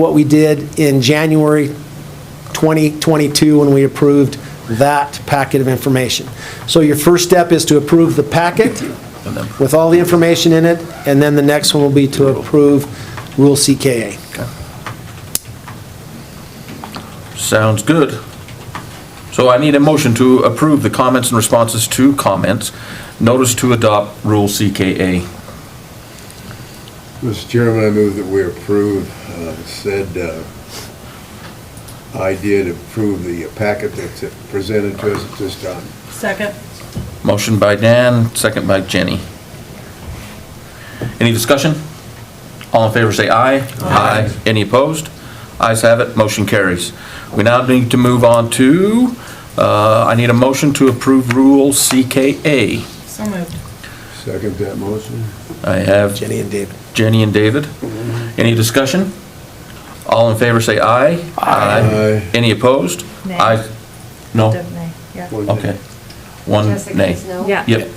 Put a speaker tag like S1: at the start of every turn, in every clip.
S1: what we did in January 2022 when we approved that packet of information. So your first step is to approve the packet with all the information in it, and then the next one will be to approve Rule CKA.
S2: Sounds good. So I need a motion to approve the comments and responses to comments, notice to adopt Rule CKA.
S3: Mr. Chairman, I move that we approve uh, said uh, idea to approve the packet that's presented to us at this time.
S4: Second.
S2: Motion by Dan, second by Jenny. Any discussion? All in favor, say aye. Aye. Any opposed? Ayes have it, motion carries. We now need to move on to, uh, I need a motion to approve Rule CKA.
S4: So moved.
S3: Second that motion?
S2: I have
S1: Jenny and David.
S2: Jenny and David. Any discussion? All in favor, say aye.
S3: Aye.
S2: Any opposed?
S5: Nay.
S2: Ayes- No?
S5: Yeah.
S3: One day.
S2: Okay. One nay.
S5: Jessica's no.
S4: Yeah.
S2: Yep.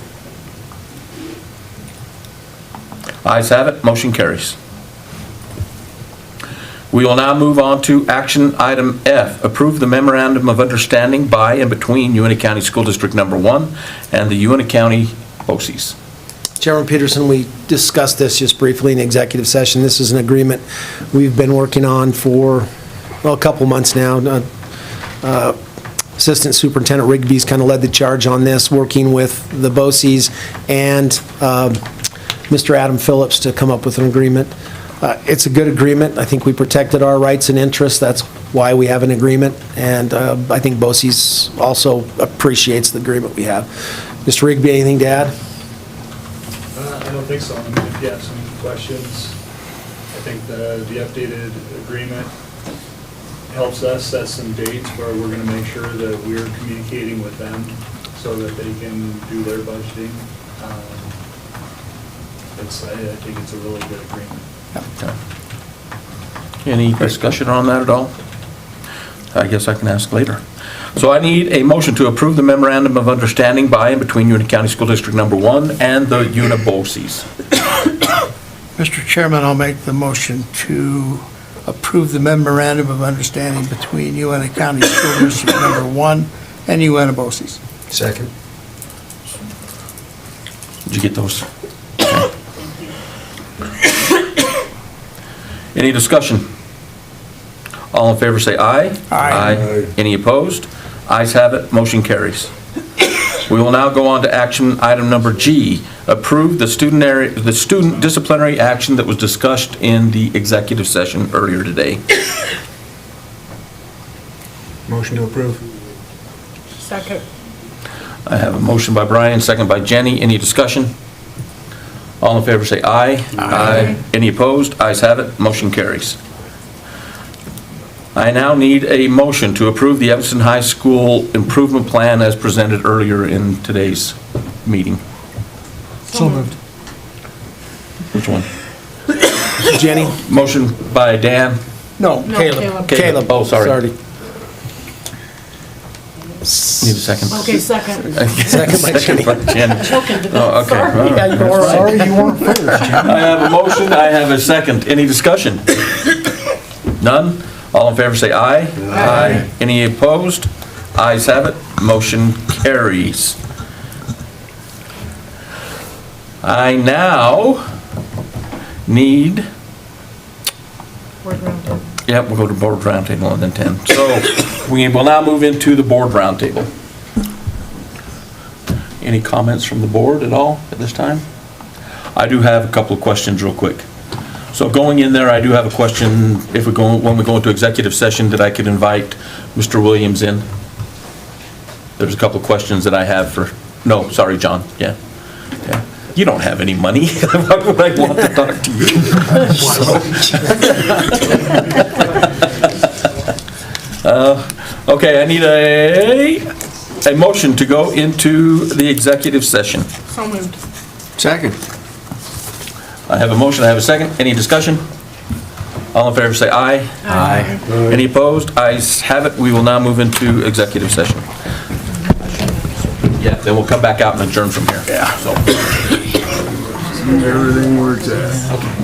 S2: Ayes have it, motion carries. We will now move on to action item F, approve the memorandum of understanding by and between UNT County School District Number One and the UNT County BOCES.
S1: Chairman Peterson, we discussed this just briefly in executive session. This is an agreement we've been working on for, well, a couple months now. Uh, Assistant Superintendent Rigby's kind of led the charge on this, working with the BOCES and um, Mr. Adam Phillips to come up with an agreement. Uh, It's a good agreement. I think we protected our rights and interests. That's why we have an agreement, and uh, I think BOCES also appreciates the agreement we have. Mr. Rigby, anything to add?
S6: Uh, I don't think so. I mean, If you have some questions, I think the, the updated agreement helps us set some dates where we're gonna make sure that we're communicating with them so that they can do their budgeting. Um, It's, I I think it's a really good agreement.
S2: Any discussion on that at all? I guess I can ask later. So I need a motion to approve the memorandum of understanding by and between Uinta County School District Number One and the UNIBOCES.
S7: Mr. Chairman, I'll make the motion to approve the memorandum of understanding between UNT County School District Number One and UNABOCES.
S1: Second.
S2: Did you get those? Any discussion? All in favor, say aye.
S7: Aye.
S3: Aye.
S2: Any opposed? Ayes have it, motion carries. We will now go on to action item number G, approve the student area, the student disciplinary action that was discussed in the executive session earlier today.
S8: Motion to approve.
S4: Second.
S2: I have a motion by Brian, second by Jenny. Any discussion? All in favor, say aye. Aye. Any opposed? Ayes have it, motion carries. I now need a motion to approve the Evanston High School Improvement Plan as presented earlier in today's meeting.
S8: So moved.
S2: Which one?
S1: Jenny?
S2: Motion by Dan.
S7: No,
S4: No,
S7: Caleb.
S1: Caleb.
S2: Oh, sorry. Need a second.
S4: Okay, second.
S1: Second by Jenny.
S2: Second by Jen.
S4: Joking, but
S2: Oh, okay.
S4: sorry.
S2: All right.
S7: Sorry, you weren't
S2: I have a motion, I have a second. Any discussion? None? All in favor, say aye. Aye. Any opposed? Ayes have it, motion carries. I now need,
S4: Word round two.
S2: yep, we'll go to board roundtable and then 10. So we will now move into the board roundtable. Any comments from the board at all at this time? I do have a couple of questions real quick. So going in there, I do have a question, if we go, when we go into executive session, that I could invite Mr. Williams in? There's a couple of questions that I have for, no, sorry, John, yeah. Yeah. You don't have any money, why would I want to talk to you? Uh, Okay, I need a, a motion to go into the executive session.
S4: So moved.
S8: Second.
S2: I have a motion, I have a second. Any discussion? All in favor, say aye.
S8: Aye.
S2: Any opposed? Ayes have it. We will now move into executive session. Yeah, then we'll come back out and adjourn from here. Yeah.
S3: Everything works out.